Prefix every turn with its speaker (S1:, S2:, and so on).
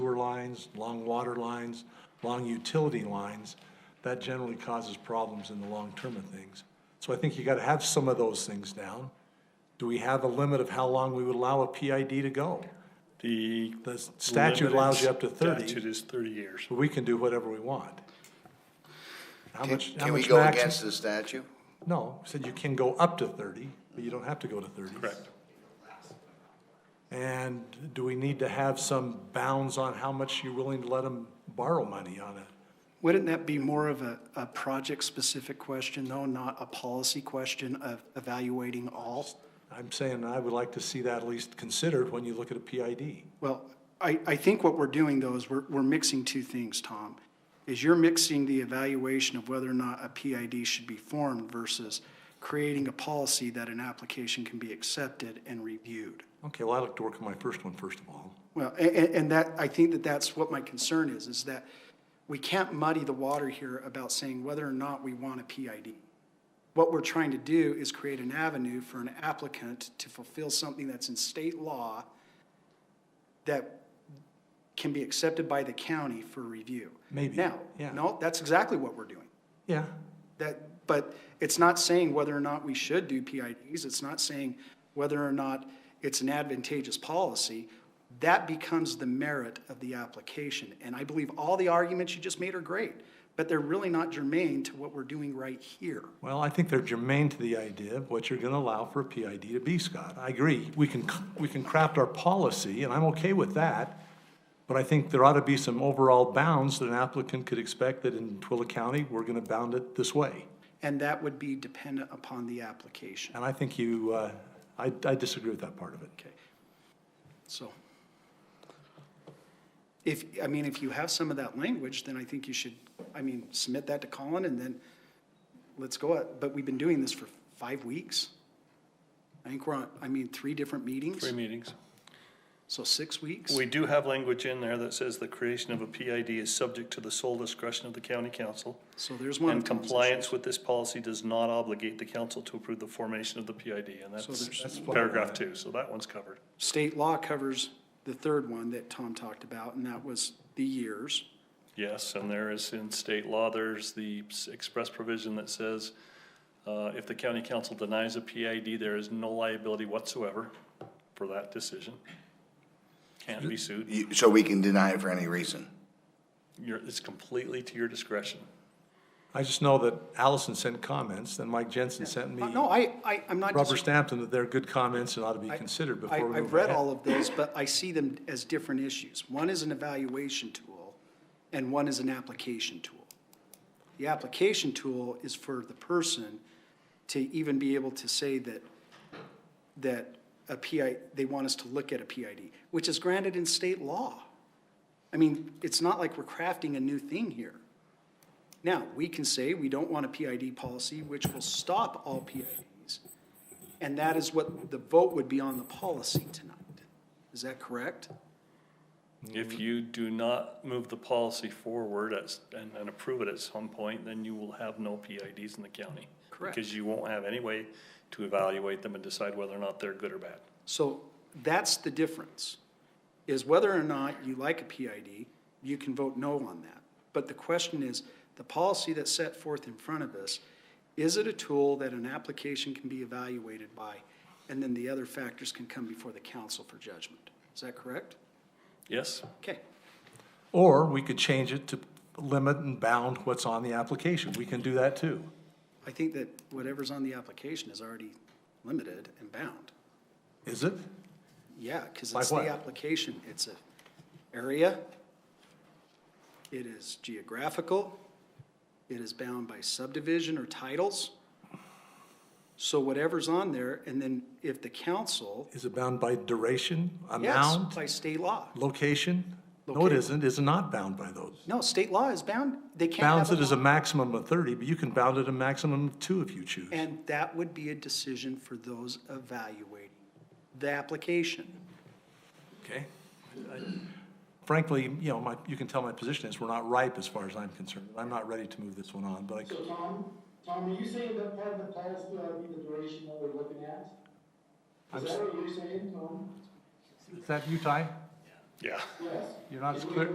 S1: lines, long water lines, long utility lines, that generally causes problems in the long term of things. So I think you gotta have some of those things down. Do we have a limit of how long we would allow a PID to go?
S2: The.
S1: The statute allows you up to
S2: limited
S1: 30.
S2: Statute is thirty years.
S1: But we can do whatever we want. How
S3: Can-
S1: much, how
S3: Can we
S1: much
S3: go
S1: max-
S3: against the statute?
S1: No, said you can go up to thirty, but you don't have to go to thirty.
S2: Correct.
S1: And do we need to have some bounds on how much you're willing to let them borrow money on it?
S4: Wouldn't that be more of a, a project-specific question, though, not a policy question of evaluating all?
S1: I'm saying I would like to see that at least considered when you look at a PID.
S4: Well, I, I think what we're doing, though, is we're, we're mixing two things, Tom. Is you're mixing the evaluation of whether or not a PID should be formed versus creating a policy that an application can be accepted and reviewed.
S1: Okay, well, I'd like to work on my first one first of all.
S4: Well, and, and that, I think that that's what my concern is, is that we can't muddy the water here about saying whether or not we want a PID. What we're trying to do is create an avenue for an applicant to fulfill something that's in state law that can be accepted by the county for review.
S1: Maybe,
S4: Now,
S1: yeah.
S4: no, that's exactly what we're doing.
S1: Yeah,
S4: That, but it's not saying whether or not we should do PIDs, it's not saying whether or not it's an advantageous policy. That becomes the merit of the application, and I believe all the arguments you just made are great, but they're really not germane to what we're doing right here.
S1: well, I think they're germane to the idea of what you're gonna allow for a PID to be, Scott. I agree, we can, we can craft our policy, and I'm okay with that. But I think there ought to be some overall bounds that an applicant could expect that in Twilla County, we're gonna bound it this way.
S4: And that would be dependent upon the application,
S1: And I think you, uh, I I disagree with that part of it.
S4: okay? So. If, I mean, if you have some of that language, then I think you should, I mean, submit that to Colin and then let's go at, but we've been doing this for five weeks. I think we're on, I mean, three different meetings,
S2: Three meetings.
S4: so six weeks.
S2: We do have language in there that says the creation of a PID is subject to the sole discretion of the county council.
S4: So there's one.
S2: And
S4: of Tom's
S2: compliance with this policy does not obligate the council to approve the formation of the PID, and
S4: So there's-
S2: that's
S1: That's what-
S2: paragraph two, so that one's covered.
S4: issues. State law covers the third one that Tom talked about, and that was the years.
S2: Yes, and there is in state law, there's the s- express provision that says, uh, if the county council denies a PID, there is no liability whatsoever for that decision. Can't be sued.
S3: You- So we can deny it for any reason?
S2: You're, it's completely to your discretion.
S1: I just know that Allison sent comments, and Mike Jensen sent me
S4: Uh, No, I, I, I'm not.
S1: rubber
S4: dis-
S1: stamped, and that they're good comments and ought to be
S4: I-
S1: considered
S4: I-
S1: before we
S4: I've
S1: move
S4: read
S1: ahead.
S4: all of those, but I see them as different issues. One is an evaluation tool, and one is an application tool. The application tool is for the person to even be able to say that, that a PI, they want us to look at a PID, which is granted in state law. I mean, it's not like we're crafting a new thing here. Now, we can say we don't want a PID policy, which will stop all PIDs, and that is what the vote would be on the policy tonight. Is that correct?
S2: If you do not move the policy forward at s- and, and approve it at some point, then you will have no PIDs in the county.
S4: Correct.
S2: Because you won't have any way to evaluate them and decide whether or not they're good or bad.
S4: So that's the difference, is whether or not you like a PID, you can vote no on that. But the question is, the policy that's set forth in front of us, is it a tool that an application can be evaluated by? And then the other factors can come before the council for judgment. Is that correct?
S2: Yes?
S4: Okay.
S1: Or we could change it to limit and bound what's on the application. We can do that too.
S4: I think that whatever's on the application is already limited and bound.
S1: Is it?
S4: Yeah, because
S1: Like
S4: it's the
S1: what?
S4: application, it's a area, it is geographical, it is bound by subdivision or titles. So whatever's on there, and then if the council,
S1: Is it bound by duration,
S4: yes,
S1: amount,
S4: by state law.
S1: location? No, it
S4: Loca-
S1: isn't. It's not bound by those.
S4: No, state law is bound, they can't have.
S1: Bounds it as a
S4: law.
S1: maximum of thirty, but you can bound it a maximum of two if you choose.
S4: And that would be a decision for those evaluating the application.
S1: Okay. Frankly, you know, my, you can tell my position is we're not ripe as far as I'm concerned. I'm not ready to move this one on, but I,
S5: So Tom, Tom, are you saying that part of the policy ought to be the duration that we're looking at? Is that what you're saying, Tom?
S1: is that you, Ty?
S2: Yeah.
S5: Yes.
S1: You're not as clear,